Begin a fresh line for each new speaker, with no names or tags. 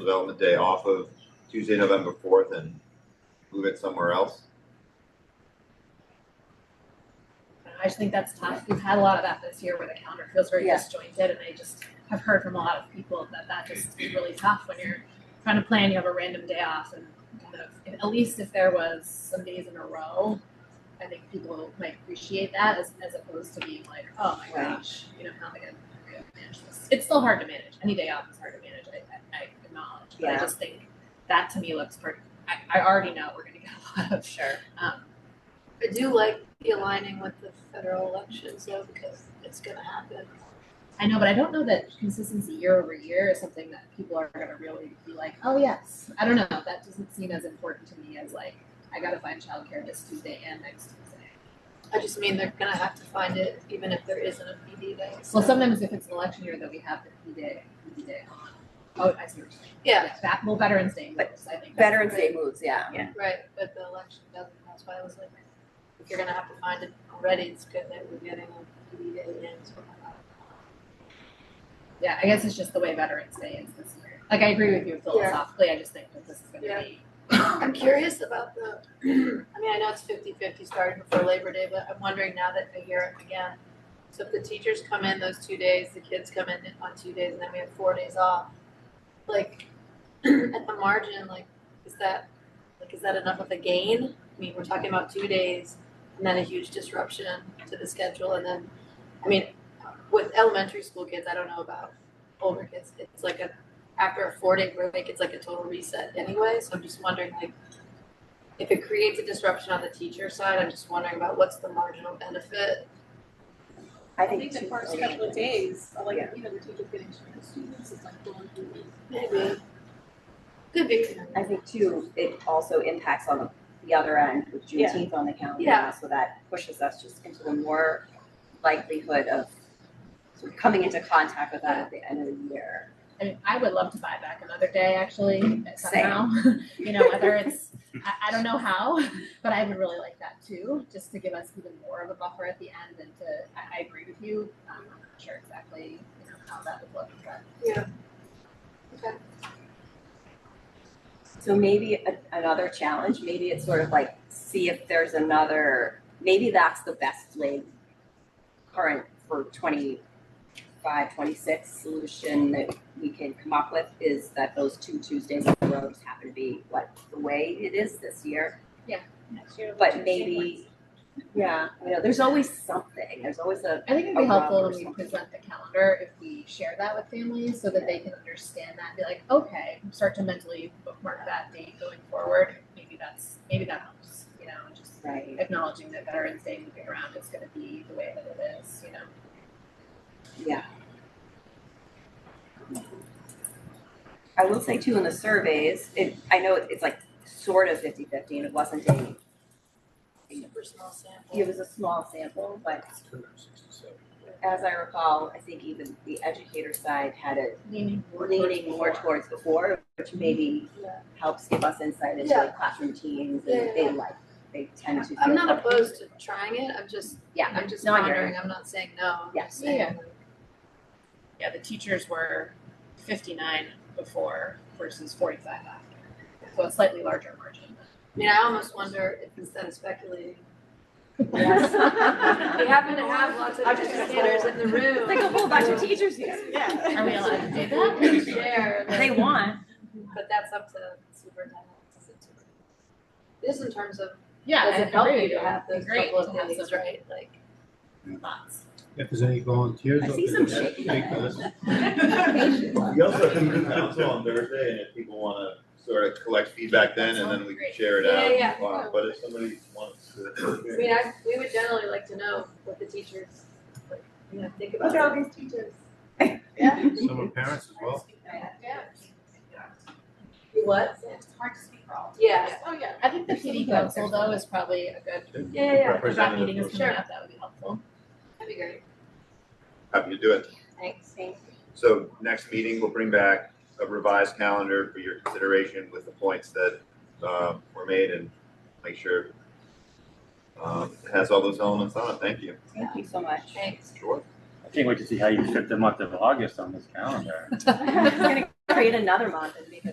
Development Day off of Tuesday, November fourth and move it somewhere else?
I just think that's tough. We've had a lot of that this year where the calendar feels very
Yeah.
disjointed, and I just have heard from a lot of people that that just is really tough when you're trying to plan. You have a random day off, and kind of if, at least if there was some days in a row, I think people might appreciate that as, as opposed to being like, oh my
Right.
gosh, you know how am I going to manage this? It's still hard to manage. Any day off is hard to manage. I, I, I acknowledge, but I
Yeah.
just think that to me looks pretty. I, I already know we're going to get a lot of
Sure.
um,
I do like the aligning with the federal elections though, because it's gonna happen.
I know, but I don't know that consistency year over year is something that people are going to really be like, oh, yes. I don't know. That doesn't seem as important to me as, like, I got to find childcare this Tuesday and next Tuesday.
I just mean they're gonna have to find it even if there isn't a PD day.
Well,
so-
sometimes if it's an election year, that we have the PD day, PD day on. Oh, I see what you're saying.
Yeah,
That, well, Veterans Day
But
moves, I think. that's
Veterans
good.
Day moves, yeah.
right, but the election doesn't, that's why I was like, if you're gonna have to find it already, it's good that we're getting a PD day in, so.
Yeah, I guess it's just the way Veterans Day is this year. Like, I agree with you philosophically. I just think that this is going to
Yeah.
be.
I'm curious about the, I mean, I know it's fifty-fifty starting before Labor Day, but I'm wondering now that I hear it again. So if the teachers come in those two days, the kids come in on two days, and then we have four days off, like, at the margin, like, is that, like, is that enough of a gain? I mean, we're talking about two days and then a huge disruption to the schedule, and then, I mean, with elementary school kids, I don't know about older kids, it's like a, after a four-day break, it's like a total reset anyway, so I'm just wondering, like, if it creates a disruption on the teacher side, I'm just wondering about what's the marginal benefit.
I
I
think
think the
two-
first couple of days, like, you know, the teachers getting to know the students, it's like going through the
Maybe. Could be.
I think too, it also impacts on the- the other end with
Yeah.
Juneteenth on the calendar.
Yeah.
So that pushes us just into the more likelihood of sort of coming into contact with that at the end of the year.
I mean, I would love to buy back another day actually somehow. you know, whether it's I, I don't know how, but I would really like that too, just to give us even more of a buffer at the end and to I, I agree with you. Um, I'm not sure exactly you know how that would look, but
So maybe a- another challenge, maybe it's sort of like, see if there's another, maybe that's the best laid current for 25, 26 solution that we can come up with is that those two Tuesdays in a row just happen to be what the way it is this year.
next year.
But
which is
maybe-
sequence.
Yeah. You know, there's always something, there's always a,
I think it'd be
A
helpful
rub or
when we
something.
present the calendar if we share that with families so that they can understand that, be like, okay, start to mentally bookmark that date going forward. Maybe that's maybe that helps, you know, and just
right,
acknowledging that Veterans Day moving around is gonna be the way that it is, you know.
Yeah. I will say too, in the surveys, it, I know it's like sort of 50/50 and it wasn't a,
Super small sample.
it was a small sample, but as I recall, I think even the educator side had it
Leaning more towards
leaning more
before.
towards before, which maybe
Yeah.
helps give us insight into
Yeah.
like classroom teams
Yeah,
and
yeah,
they
yeah.
like, they tend to feel.
I'm not
comfortable.
opposed to trying it, I'm just,
Yeah,
I'm just
No, I hear
wondering, I'm not saying no, I'm
Yeah.
just saying,
Yeah.
like,
yeah, the teachers were fifty-nine before versus forty-five after. So a slightly larger margin.
I mean, I almost wonder if instead of speculating,
Yes.
we happen to have lots of
I'm just gonna
educators in the room.
Like a whole bunch of teachers here. Yeah.
Are we allowed to do
That
that?
can share, like-
They want.
but that's up to the superintendent. It's up to- Just in terms of,
Yeah,
does
I
it help
agree.
you to have those
Great
couple
to
of
have
days,
some
right, like.
thoughts.
If there's any volunteers.
I
up
see
there,
some
that'd
shaking.
be nice.
We also have the council on Thursday, and if people wanna sort of collect feedback then, and then we can share it
Yeah,
out.
yeah, yeah.
Wow, But if somebody wants
I
to.
mean, I, we would generally like to know what the teachers, like, you know, think about.
all these teachers.
Some are parents as well.
Yeah.
You What?
It's hard to speak for all.
Yeah,
Oh, yeah.
I think the PD council though is probably a good,
yeah, yeah, yeah,
if that meeting is
Representative,
coming
Sure.
up, that would be helpful.
that'd be great.
happy to do it.
Thanks. Thank
So next meeting, we'll bring back a revised calendar for your consideration with the points that, uh, were made and make sure um, it has all those elements on it. Thank you.
Thank you so much.
Thanks.
Sure.
I can't wait to see how you fit the month of August on this calendar.
I'm gonna create another month and make it